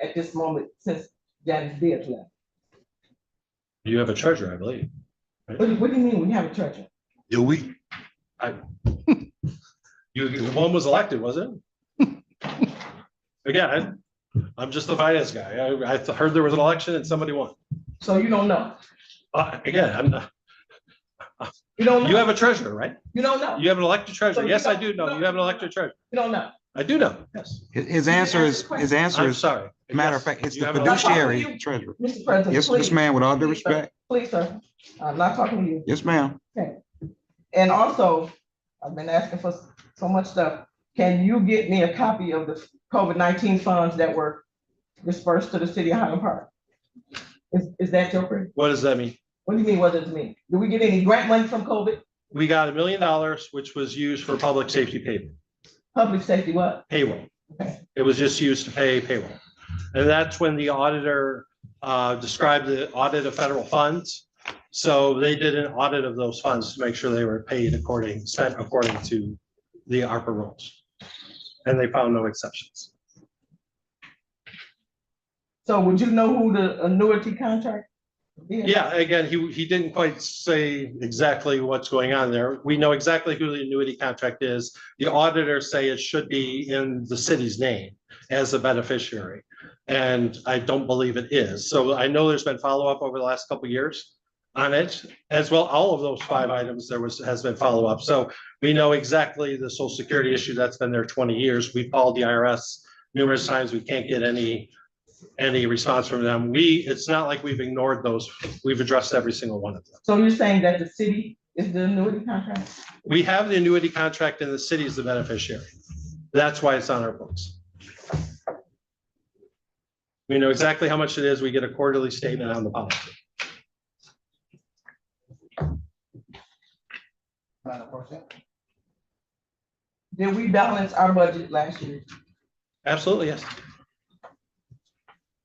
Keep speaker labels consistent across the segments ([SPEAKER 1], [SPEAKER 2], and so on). [SPEAKER 1] at this moment since Janice Beard left.
[SPEAKER 2] You have a treasure, I believe.
[SPEAKER 1] What, do- what do you mean we have a treasurer?
[SPEAKER 2] Do we? I. You, you- one was elected, was it? Again, I- I'm just the finance guy. I, I heard there was an election and somebody won.
[SPEAKER 1] So you don't know.
[SPEAKER 2] Uh, again, I'm, not-
[SPEAKER 1] You don't
[SPEAKER 2] you
[SPEAKER 1] know.
[SPEAKER 2] have a treasurer, right?
[SPEAKER 1] You don't know.
[SPEAKER 2] You have an elected treasurer. Yes, I do know. You have an elected treasurer.
[SPEAKER 1] You don't know.
[SPEAKER 2] I do know, yes.
[SPEAKER 3] His, his answer is, his answer
[SPEAKER 2] I'm
[SPEAKER 3] is,
[SPEAKER 2] sorry.
[SPEAKER 3] matter of
[SPEAKER 2] Yes,
[SPEAKER 3] fact, it's
[SPEAKER 2] you
[SPEAKER 3] the
[SPEAKER 2] have an elected-
[SPEAKER 3] fiduciary treasurer.
[SPEAKER 1] Mr. President,
[SPEAKER 3] Yes,
[SPEAKER 1] please,
[SPEAKER 3] yes, ma'am, with all due respect.
[SPEAKER 1] please, sir. I'm not talking to you.
[SPEAKER 3] Yes, ma'am.
[SPEAKER 1] And also, I've been asking for s- so much stuff. Can you get me a copy of the COVID nineteen funds that were dispersed to the city of Highland Park? Is, is that your, pre-
[SPEAKER 2] What does that mean?
[SPEAKER 1] what do you mean, what does it mean? Do we get any grant money from COVID?
[SPEAKER 2] We got a million dollars, which was used for public safety pay,
[SPEAKER 1] Public safety, what?
[SPEAKER 2] payroll.
[SPEAKER 1] Okay.
[SPEAKER 2] It was just used to pay payroll. And that's when the auditor uh, described the audit of federal funds. So they did an audit of those funds to make sure they were paid according, spent according to the ARPA rules. And they found no exceptions.
[SPEAKER 1] So would you know who the annuity contract? is?
[SPEAKER 2] Yeah, again, he, he didn't quite say exactly what's going on there. We know exactly who the annuity contract is. The auditors say it should be in the city's name as a beneficiary. And I don't believe it is. So I know there's been follow-up over the last couple of years on it. As well, all of those five items, there was, has been follow-up. So we know exactly the social security issue that's been there twenty years. We've called the IRS numerous times. We can't get any, any response from them. We, it's not like we've ignored those We've addressed every single one of them.
[SPEAKER 1] So you're saying that the city is the annuity contract?
[SPEAKER 2] We have the annuity contract and the city is the beneficiary. That's why it's on our books. We know exactly how much it is. We get a quarterly statement on the policy.
[SPEAKER 1] Did we balance our budget last year?
[SPEAKER 2] Absolutely, yes.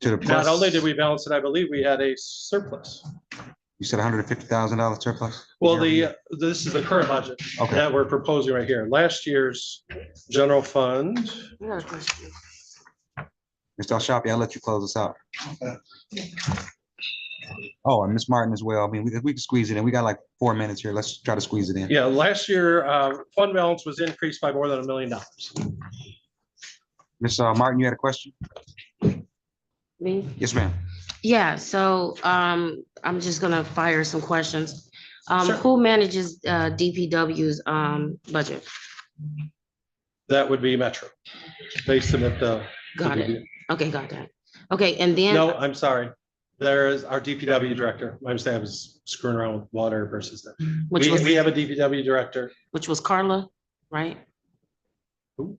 [SPEAKER 3] To the
[SPEAKER 2] Not
[SPEAKER 3] plus,
[SPEAKER 2] only did we balance it, I believe we had a surplus.
[SPEAKER 3] you said hundred and fifty thousand dollar surplus?
[SPEAKER 2] Well, the, this is the current budget
[SPEAKER 3] Okay,
[SPEAKER 2] that we're proposing right here. Last year's general fund,
[SPEAKER 3] Mr. Ashafi, I'll let you close us out. Oh, and Ms. Martin as well. I mean, we, we can squeeze it in. We got like four minutes here. Let's try to squeeze it in.
[SPEAKER 2] yeah, last year, uh, fund balance was increased by more than a million dollars.
[SPEAKER 3] Ms. uh, Martin, you had a question?
[SPEAKER 4] Me?
[SPEAKER 3] Yes, ma'am.
[SPEAKER 4] Yeah, so um, I'm just gonna fire some questions. Um,
[SPEAKER 2] Sure.
[SPEAKER 4] who manages uh DPW's um budget?
[SPEAKER 2] That would be Metro. They submit the.
[SPEAKER 4] Got it. Okay, got that. Okay, and
[SPEAKER 2] No,
[SPEAKER 4] then,
[SPEAKER 2] I'm sorry. There is our DPW director. My mistake I was screwing around with water versus that.
[SPEAKER 4] which
[SPEAKER 2] We,
[SPEAKER 4] was,
[SPEAKER 2] we have a DPW director.
[SPEAKER 4] which was Carla, right?
[SPEAKER 2] Who?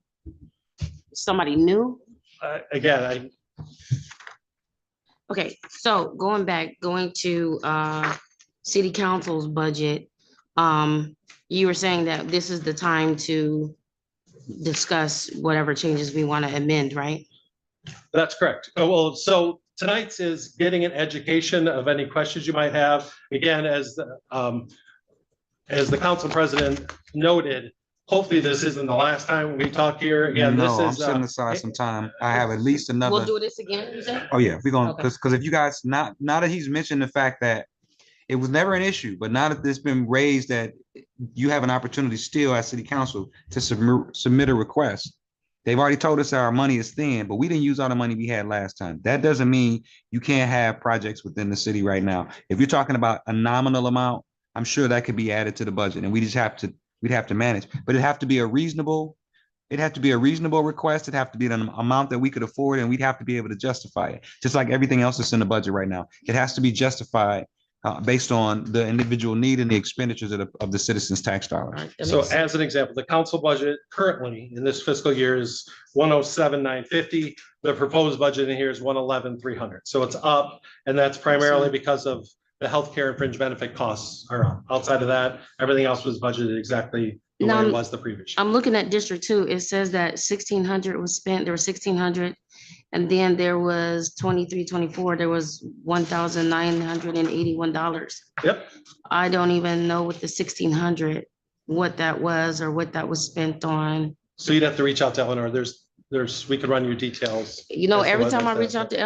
[SPEAKER 4] Somebody new?
[SPEAKER 2] Uh, Again, I,
[SPEAKER 4] Okay, so going back, going to uh city council's budget. Um, you were saying that this is the time to discuss whatever changes we want to amend, right?
[SPEAKER 2] that's correct. Oh, well, so tonight's is getting an education of any questions you might have. Again, as, the, um, as the council president noted, hopefully this isn't the last time we talk here. Again,
[SPEAKER 3] No,
[SPEAKER 2] this
[SPEAKER 3] I'm
[SPEAKER 2] is, uh,
[SPEAKER 3] setting aside some time. I have at least another.
[SPEAKER 4] We'll do this again, you said?
[SPEAKER 3] Oh, yeah, we're gonna,
[SPEAKER 4] Okay.
[SPEAKER 3] because, because if you guys, not, now that he's mentioned the fact that it was never an issue, but now that it's been raised that you have an opportunity still as city council to submit, submit a request. They've already told us our money is thin, but we didn't use all the money we had last time. That doesn't mean you can't have projects within the city right now. If you're talking about a nominal amount, I'm sure that could be added to the budget and we just have to, we'd have to manage, but it'd have to be a reasonable, it'd have to be a reasonable request. It'd have to be an amount that we could afford and we'd have to be able to justify it just like everything else that's in the budget right now. It has to be justified uh, based on the individual need and the expenditures of the, of the citizens' tax
[SPEAKER 4] All
[SPEAKER 3] dollars.
[SPEAKER 4] right, that
[SPEAKER 2] So
[SPEAKER 4] makes-
[SPEAKER 2] as an example, the council budget currently in this fiscal year is one oh seven, nine fifty. The proposed budget in here is one eleven, three hundred. So it's up and that's primarily because of the healthcare and fringe benefit costs are up. Outside of that, everything else was budgeted exactly the way
[SPEAKER 4] Now,
[SPEAKER 2] it was the previous. year.
[SPEAKER 4] I'm looking at District Two. It says that sixteen hundred was spent, there was sixteen hundred. And then there was twenty-three, twenty-four, there was one thousand nine hundred and eighty-one dollars.
[SPEAKER 2] Yep.
[SPEAKER 4] I don't even know what the sixteen hundred, what that was or what that was spent on.
[SPEAKER 2] So you'd have to reach out to Eleanor. There's there's, we could run you details.
[SPEAKER 4] You know,
[SPEAKER 2] That's the
[SPEAKER 4] every
[SPEAKER 2] one
[SPEAKER 4] time I
[SPEAKER 2] that's
[SPEAKER 4] reach
[SPEAKER 2] out
[SPEAKER 4] out to